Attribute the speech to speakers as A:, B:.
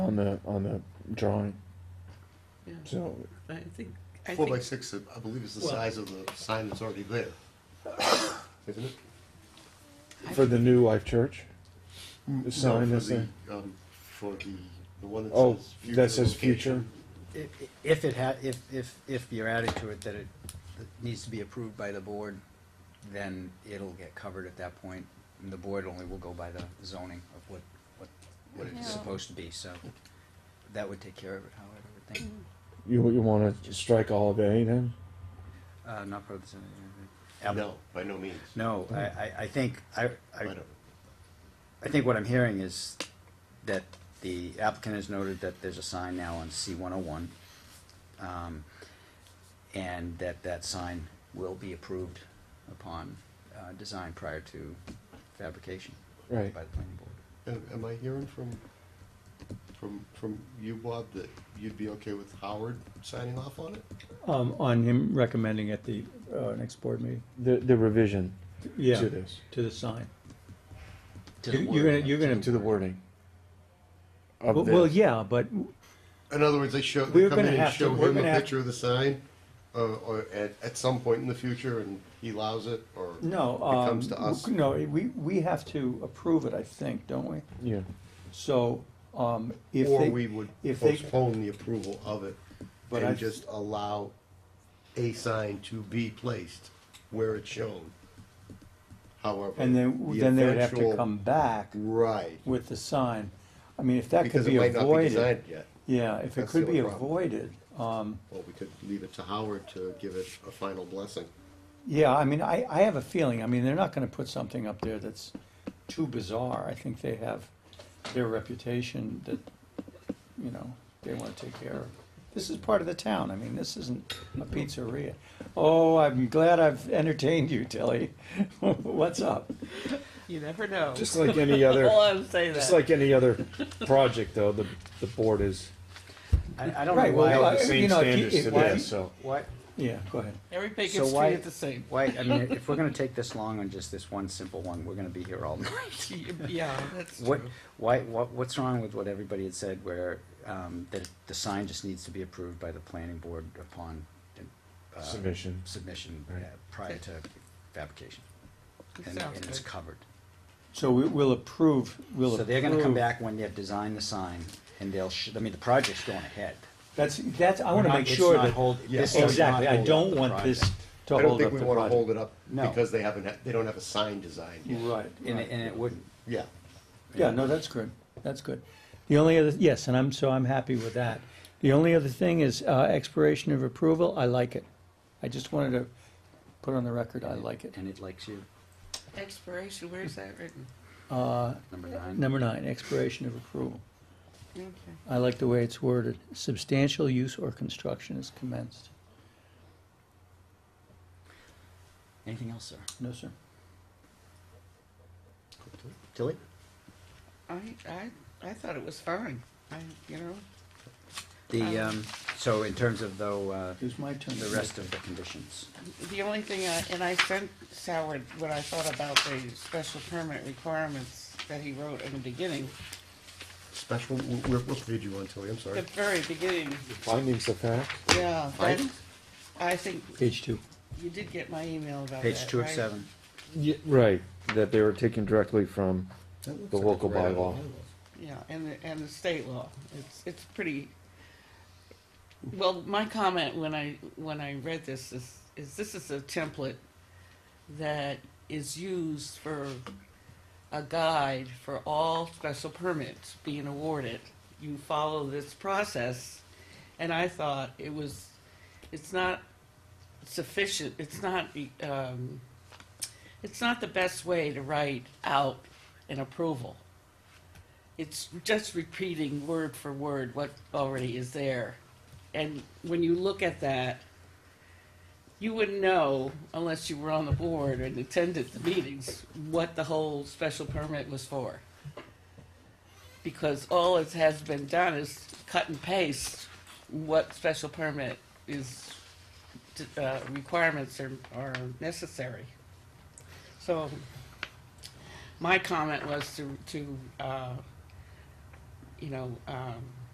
A: on the, on the drawing,
B: Yeah,
A: so,
B: I think, I
C: Four by
B: think,
C: six, I believe is the
B: Well-
C: size of the sign that's already there. Isn't it?
A: for the new Life Church?
C: No,
A: The sign
C: for
A: that's
C: the,
A: there?
C: um, For the, the one that
A: Oh,
C: says.
A: that says future?
C: location.
D: If, if it ha, if, if, if you're adding to it that it that needs to be approved by the board, then it'll get covered at that point, and the board only will go by the zoning of what, what, what
E: Yeah.
D: it's supposed to be, so that would take care of it, however, I would think.
A: You, you wanna strike all of A then?
D: Uh, not part of the zoning. uh,
C: No, by no means.
D: No, I, I, I think, I,
C: I
D: I,
C: don't.
D: I think what I'm hearing is that the applicant has noted that there's a sign now on C one oh one. um, And that that sign will be approved upon, uh, design prior to fabrication by the
A: Right,
D: planning board.
C: Am am I hearing from, from, from you, Bob, that you'd be okay with Howard signing off on it?
F: um, on him recommending at the, uh, next board meeting,
A: the, the revision
F: yeah,
A: to this,
F: to the sign.
D: To the
F: You-
D: word,
F: You're gonna, you're gonna,
A: to the wording
F: well,
A: of
F: well,
A: this.
F: yeah, but,
C: In other words, they show,
F: We're
C: they come in
F: gonna
C: and
F: have to-
C: show
F: we're
C: him a
F: gonna have-
C: picture of the sign, uh, or at, at some point in the future, and he allows it, or?
F: no,
C: It
F: um,
C: comes to us.
F: no, we, we have to approve it, I think, don't we?
A: Yeah,
F: So, um, if
C: Or
F: they.
C: we would
F: if they-
C: postpone the approval of it
F: But I-
C: and just allow a sign to be placed where it's shown. However.
F: And then,
C: the
F: then they would have to
C: eventual-
F: come back
C: Right,
F: with the sign. I mean, if that could
C: because it
F: be
C: might not be designed
F: avoided,
C: yet.
F: yeah, if it
C: That's
F: could
C: the
F: be
C: only problem.
F: avoided, um,
C: Well, we could leave it to Howard to give it a final blessing.
F: yeah, I mean, I, I have a feeling, I mean, they're not gonna put something up there that's too bizarre. I think they have their reputation that, you know, they wanna take care of. This is part of the town, I mean, this isn't a pizzeria. Oh, I'm glad I've entertained you, Tilly. What's up?
B: you never know.
A: just like any other.
B: Well, I'm saying
A: Just
B: that.
A: like any other project, though, the, the board is
D: I, I don't know
F: Right, well,
A: held
F: I-
A: the
D: why,
A: same
F: you know, if you-
A: standards
F: if-
A: to
F: why-
A: this, so.
D: why,
F: Yeah, go ahead.
B: Every
D: So
B: Bacon Street
D: why-
B: is the same.
D: why, I mean, if we're gonna take this long on just this one simple one, we're gonna be here all night.
B: Yeah, that's true.
D: What, why, what, what's wrong with what everybody had said where, um, that the sign just needs to be approved by the planning board upon, uh,
A: Submission.
D: Submission,
A: Right.
D: uh, prior to fabrication.
B: It
D: And,
B: sounds
D: and it's
B: good.
D: covered.
F: So we, we'll approve, we'll approve.
D: So they're gonna come back when they've designed the sign and they'll, sh- I mean, the project's going ahead.
F: That's, that's, I wanna
D: Not-
F: make
D: it's
F: sure
D: not
F: that.
D: hold- this does
F: Exactly,
D: not
F: I
D: hold up
F: don't
D: the
F: want this
D: project.
F: to
C: I don't
F: hold up
C: think we
F: the
C: wanna hold it
F: project.
C: up
D: No.
C: because they haven't, ha- they don't have a sign designed yet.
F: Right,
D: And, it-
F: right.
D: and it wouldn't,
C: Yeah.
F: yeah, no, that's good, that's good. The only other, yes, and I'm, so I'm happy with that. The only other thing is, uh, expiration of approval, I like it. I just wanted to put on the record, I like it.
D: and it likes you,
B: Expiration, where is that written?
F: Uh,
D: number nine.
F: number nine, expiration of approval.
B: Okay.
F: I like the way it's worded, substantial use or construction is commenced.
D: Anything else, sir?
F: No, sir.
D: Tilly?
B: I, I, I thought it was fine. I, you know,
D: The,
B: Um,
D: um, so in terms of though, uh,
F: It was my turn.
D: the rest of the conditions,
B: the only thing, I and I sent Howard what I thought about the special permit requirements that he wrote in the beginning,
C: Special, where, what page you on, Tilly? I'm
B: the
C: sorry.
B: very beginning,
A: Findings of fact,
B: yeah. that-
C: Findings?
B: I think
F: Page two.
B: you did get my email about that,
D: page two of
B: right?
D: seven.
A: right, that they were taken directly from
C: That looks
A: the
C: like it's
A: local
C: right out of
A: bylaw.
C: the
B: Yeah, and the, and the state law, it's, it's pretty, well, my comment when I, when I read this is, is this is a template that is used for a guide for all special permits being awarded. You follow this process, and I thought it was, it's not sufficient, it's not, um, it's not the best way to write out an approval it's just repeating word for word what already is there. And when you look at that, you wouldn't know unless you were on the board and attended the meetings what the whole special permit was for. Because all it has been done is cut and paste what special permit is, uh, requirements are, are necessary. So my comment was to, to, uh, you know, um,